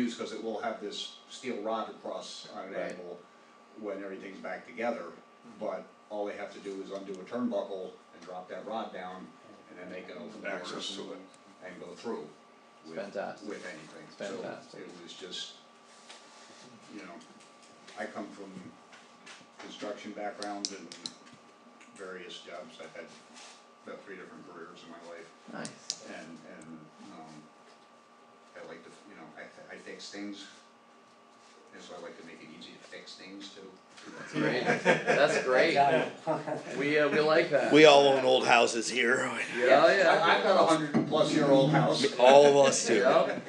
use, cause it will have this steel rod across on an Right. angle when everything's back together, but all they have to do is undo a turnbuckle and drop that rod down, and then they can open doors access to it. and go through It's with, fantastic. with anything. It's So fantastic. it was just, you know, I come from construction background and various jobs. I've had about three different careers in my life Nice. and, and, um, I like to, you know, I, I fix things. And so I like to make it easy to fix things too. Great. That's great. We, uh, we like that. We all own old houses here. Yeah, oh, yeah. I- I've got a hundred plus year old house. All of us do. Yep.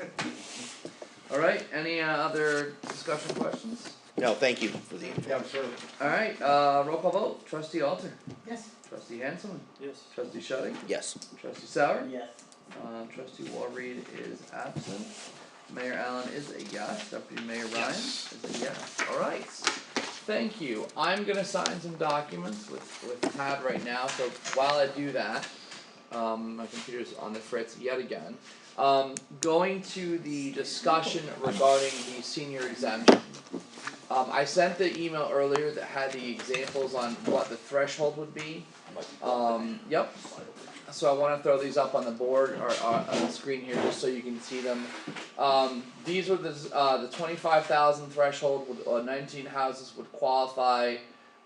Alright, any uh, other discussion questions? No, thank you for the info. Yeah, sure. Alright, uh, roll call vote, trustee Alter, Yes. trustee Hanselman, Yes. trustee Shetty, Yes. trustee Sauer. Yes. Um, trustee Walreed is absent. Mayor Allen is a yes. Deputy Mayor Ryan Yes. is a yes. Alright. Thank you. I'm gonna sign some documents with with Tad right now, so while I do that, um, my computer's on the fritz yet again. Um, going to the discussion regarding the senior exemption. Um, I sent the email earlier that had the examples on what the threshold would be. Um, yep, so I wanna throw these up on the board or on on the screen here just so you can see them. Um these were the uh the twenty five thousand threshold would uh nineteen houses would qualify.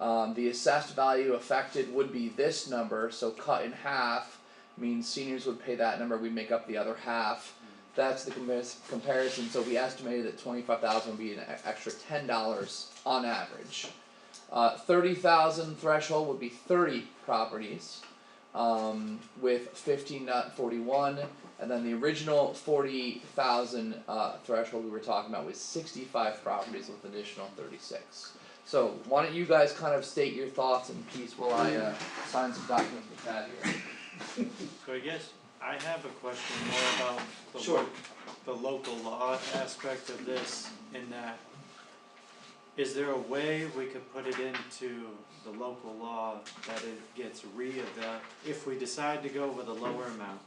Um the assessed value affected would be this number, so cut in half means seniors would pay that number, we make up the other half. That's the comparis- comparison, so we estimated that twenty five thousand would be an e- extra ten dollars on average. Uh thirty thousand threshold would be thirty properties um, with fifteen not forty one, and then the original forty thousand uh, threshold we were talking about was sixty five properties with additional thirty six. So why don't you guys kind of state your thoughts in peace while I uh, sign some documents with Tad here. So I guess I have a question more about the Sure. lo- the local law aspect of this in that is there a way we could put it into the local law that it gets re-eval, if we decide to go with a lower amount?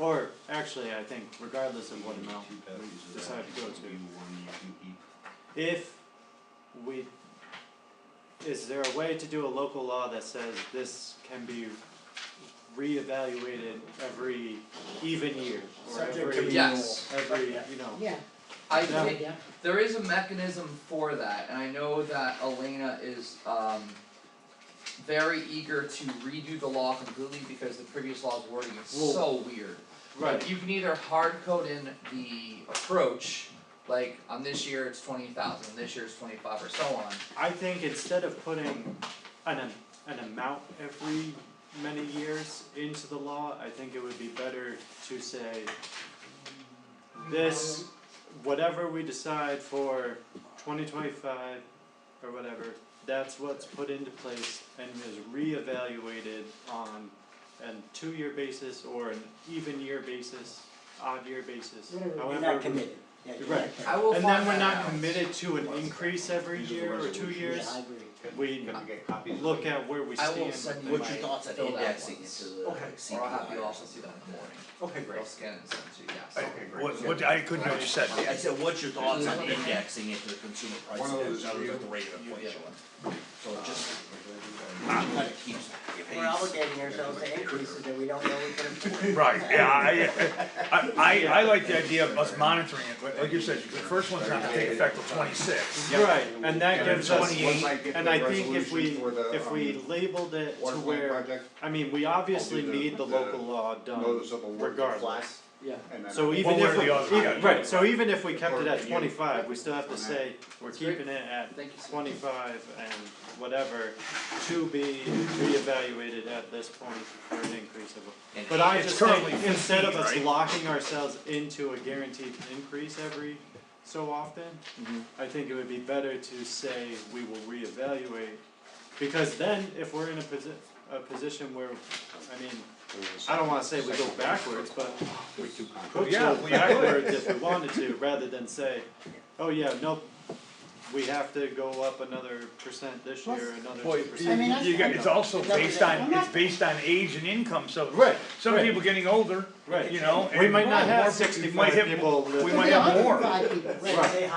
Or actually, I think regardless of what amount we decide to go to, if we is there a way to do a local law that says this can be reevaluated every even year or Subject every Yes, every Yeah. you know Yeah. I Yeah. think Yeah. there is a mechanism for that, and I know that Elena is um very eager to redo the law completely because the previous law's wording is Well, so weird. right But you can either hard code in the approach, like on this year it's twenty thousand, this year it's twenty five or so on. I think instead of putting an am- an amount every many years into the law I think it would be better to say this whatever we decide for twenty twenty five or whatever that's what's put into place and is reevaluated on an two year basis or an even year basis odd year basis Whatever, however you're not committed. Yeah, you're not Right. committed. I will and find then that we're not out. committed to an increase every These are the year or two resolutions. years. Yeah, I agree. We Can we get copies? of look it? at where we I stand. will send you with my the- What's your thoughts on fill that indexing once. into the Okay. CPI? Or I'll have you also see that in the morning. Okay, I'll great. scan it and send it to you, yes. Okay, great. What, what, I couldn't hear what you said. I said, what's your thoughts on One of those- indexing into the consumer price One of index, those That was you- at the rate of you- yeah. inflation? So it just, kind of keeps pace. We're obligating ourselves to increases that we don't know we can afford. Right, yeah, I, I, I, I like the idea of us monitoring it, but like you said, the first one's not gonna take effect till twenty-six. Right, and that gives us, Twenty-eight. Once I get and the I think if resolution we, for the, if we um, labeled it to water plant where, project, I mean, we obviously I'll do the- need the the local law done, notice of award to flat, regardless, yeah. and then. So even One way or if, we- the other, even- yeah. right, so even if we kept it Or at you- twenty-five, we still have to on that. say, we're That's great. keeping it at Thank you so much. twenty-five and whatever, to be reevaluated at this point for an increase of a And But I It's just currently think, instead of us 15, right? locking ourselves into a guaranteed increase every so often, Mm-hmm. I think it would be better to say we will reevaluate. Because then, if we're in a posi- a position where, I mean, I don't wanna say we go backwards, but We're too complicated. could Oh, Yeah, go we- backwards if we wanted to, rather than say, oh yeah, nope. we have to go up another percent this Plus- year, another Well, two you, I percent. mean, that's you got, it's fine. also It doesn't- based on, I'm it's not- based on age and income, so. Right, Some right. people getting older, Right. you know, and. We might not more- have more- we 65 might have- people We living. might Yeah, have more. 105 people, right, Right. they